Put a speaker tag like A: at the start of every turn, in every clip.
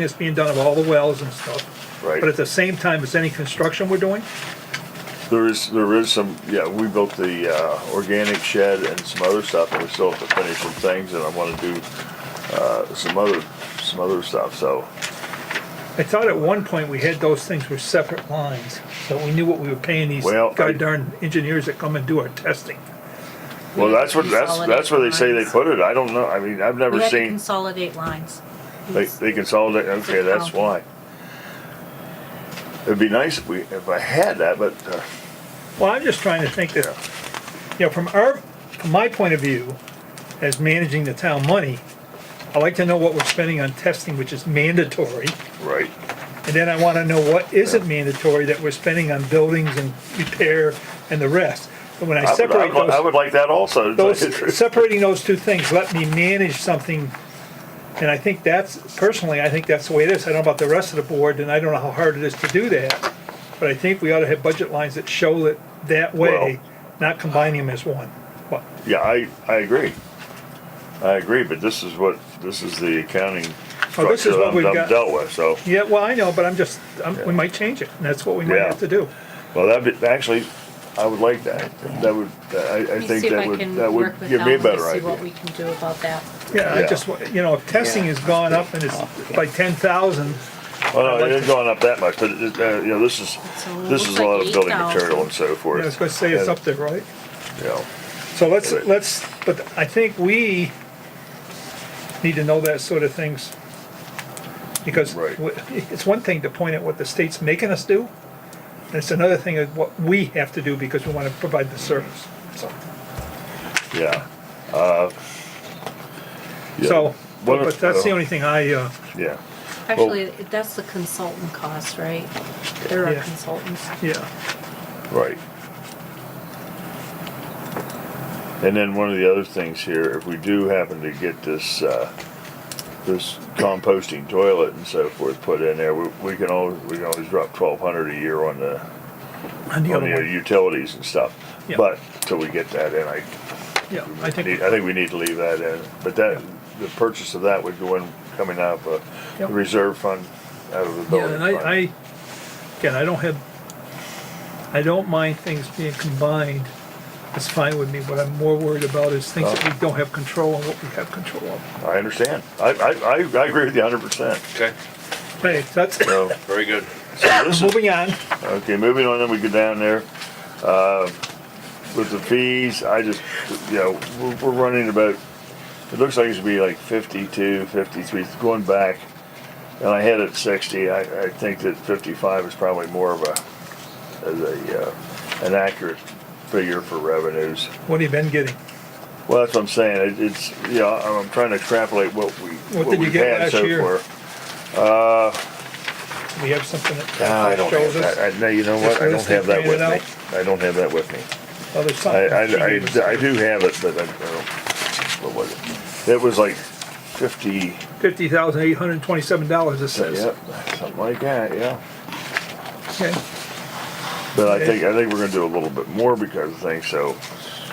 A: that's being done of all the wells and stuff.
B: Right.
A: But at the same time, is any construction we're doing?
B: There is, there is some, yeah, we built the, uh, organic shed and some other stuff, and we still have to finish some things, and I wanna do, uh, some other, some other stuff, so.
A: I thought at one point we had those things were separate lines, that we knew what we were paying these
B: Well, I-
A: god darn engineers that come and do our testing.
B: Well, that's what, that's,
C: Consolidate
B: that's where they say they
C: lines.
B: put it, I don't know, I mean, I've
C: We
B: never
C: had to
B: seen,
C: consolidate lines.
B: they, they consolidate, okay, that's why. It'd be nice if we, if I had that, but, uh,
A: Well, I'm just trying to think that, you know, from our, from my point of view, as managing the town money, I like to know what we're spending on testing, which is mandatory,
B: right,
A: and then I wanna know what isn't mandatory that we're spending on buildings and repair and the rest. And when I
B: I would, I
A: separate
B: would- I
A: those,
B: would like that also, to tell you the
A: those,
B: truth.
A: separating those two things, let me manage something. And I think that's, personally, I think that's the way it is. I don't know about the rest of the board, and I don't know how hard it is to do that. But I think we ought to have budget lines that show it that way, not combining them as one. But
B: yeah, I, I agree. I agree, but this is what, this is the accounting
A: Oh, this
B: structure
A: is
B: that
A: what
B: I'm
A: we've
B: I'm
A: got.
B: dealt with, so.
A: Yeah, well, I know, but I'm just, I'm- we might change it, and that's what we might
B: Yeah.
A: have to do.
B: Well, that'd be, actually, I would like that. That would, I, I
C: Let me
B: think
C: see if
B: that
C: I
B: would,
C: can
B: that would
C: work with
B: give me a
C: Alan to
B: better
C: See what
B: idea.
C: we can do about that.
A: Yeah, I
B: Yeah.
A: just, wa- you know, if testing has gone up and it's by ten thousand,
B: Well,
A: I'd
B: Oh, no,
A: like
B: it ain't going up that much, but, it- it, uh, you know, this is,
C: So it
B: this
C: looks
B: is a lot
C: like
B: of building
C: 8,000.
B: material and so
A: I
B: forth.
A: was gonna say it's up there, right?
B: You know,
A: So let's,
B: Right.
A: let's, but I think we need to know that sort of things. Because
B: Right.
A: w- it's one thing to point out what the state's making us do, and it's another thing of what we have to do because we wanna provide the service, so.
B: yeah. Yeah.
A: So,
B: What-
A: but that's the
B: uh,
A: only thing I, uh,
B: Yeah,
C: Actually, that's the consultant cost, right? There are
A: Yeah.
C: consultants.
A: yeah,
B: right. And then one of the other things here, if we do happen to get this, uh, this composting toilet and so forth put in there, we, we can always, we can always drop twelve hundred a year on the,
A: and the
B: on
A: other
B: your
A: one,
B: utilities and stuff.
A: Yeah.
B: But till we get that in, I
A: yeah, I think.
B: need, I think we need to leave that in. But that, the purchase of that would go in, coming out of a
A: Yep.
B: reserve fund, out of the
A: Yeah,
B: building
A: and I, I,
B: fund.
A: again, I don't have, I don't mind things being combined. It's fine with me. What I'm more worried about is things that we don't have control and what we have control of.
B: I understand. I, I, I I agree with you hundred percent.
D: Okay,
A: Hey, that's,
B: So,
D: very good.
B: so this is,
A: moving on.
B: okay, moving on, then we go down there. Uh, With the fees, I just, you know, we're, we're running about, it looks like it's gonna be like fifty-two, fifty-three, going back. And I had it sixty, I, I think that fifty-five is probably more of a, as a, uh, an accurate figure for revenues.
A: What have you been getting?
B: Well, that's what I'm saying, it, it's, you know, I'm trying to extrapolate what we,
A: What
B: what
A: did you
B: we've
A: get
B: had
A: last
B: so
A: year?
B: far.
A: We have something
B: Ah, I
A: that
B: don't
A: shows
B: have that.
A: us.
B: I, no, you know
A: Just
B: what? I don't
A: listed,
B: have that with
A: printed out?
B: me. I don't have that with me.
A: Oh, there's
B: I,
A: something.
B: I,
A: She
B: I,
A: gave us
B: I do have it, but I, I don't, what was it? It was like fifty,
A: Fifty thousand eight hundred and twenty-seven dollars, it says.
B: yep, something like that, yeah.
A: Okay,
B: But I
A: Okay.
B: think, I think we're gonna do a little bit more because I think so,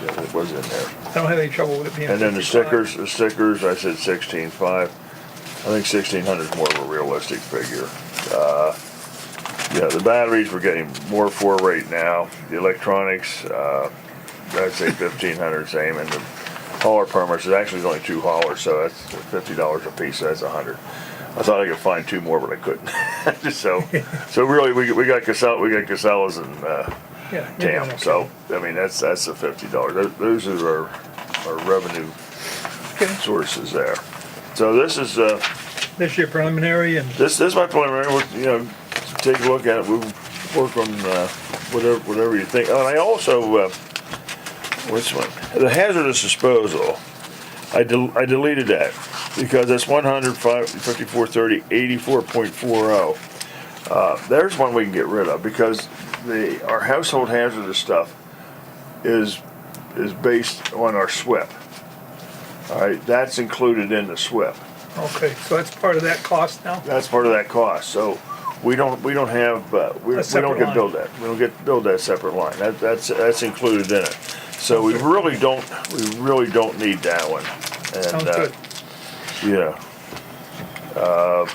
B: yeah, it was in there.
A: I don't have any trouble with it being.
B: And then the
A: 55.
B: stickers, the stickers, I said sixteen five. I think sixteen hundred is more of a realistic figure. Uh, Yeah, the batteries we're getting more for right now. The electronics, uh, I'd say fifteen hundred same, and the hauler permits, it actually is only two haulers, so that's fifty dollars a piece, so that's a hundred. I thought I could find two more, but I couldn't. So, so really, we, we got Casella, we got Casellas and, uh,
A: Yeah, you're doing
B: Tam,
A: okay.
B: so, I mean, that's, that's the fifty dollars, those are our, our revenue
A: Okay.
B: sources there. So this is, uh,
A: This year preliminary and
B: this, this is my preliminary, we'll, you know, take a look at it, we'll work on, uh, whatever, whatever you think. Oh, And I also, uh, which one? The hazardous disposal, I del- I deleted that, because that's one hundred five, fifty-four thirty, eighty-four point four oh. Uh, there's one we can get rid of, because the, our household hazardous stuff is, is based on our SWIP. All right, that's included in the SWIP
A: Okay, so that's part of that cost now?
B: that's part of that cost, so we don't, we don't have, uh, we we
A: A separate
B: don't get
A: line.
B: billed that, we don't get billed that separate line, that, that's, that's included in it. So we really don't, we really don't need that one. And,
A: Sounds
B: uh,
A: good.
B: Yeah. Uh,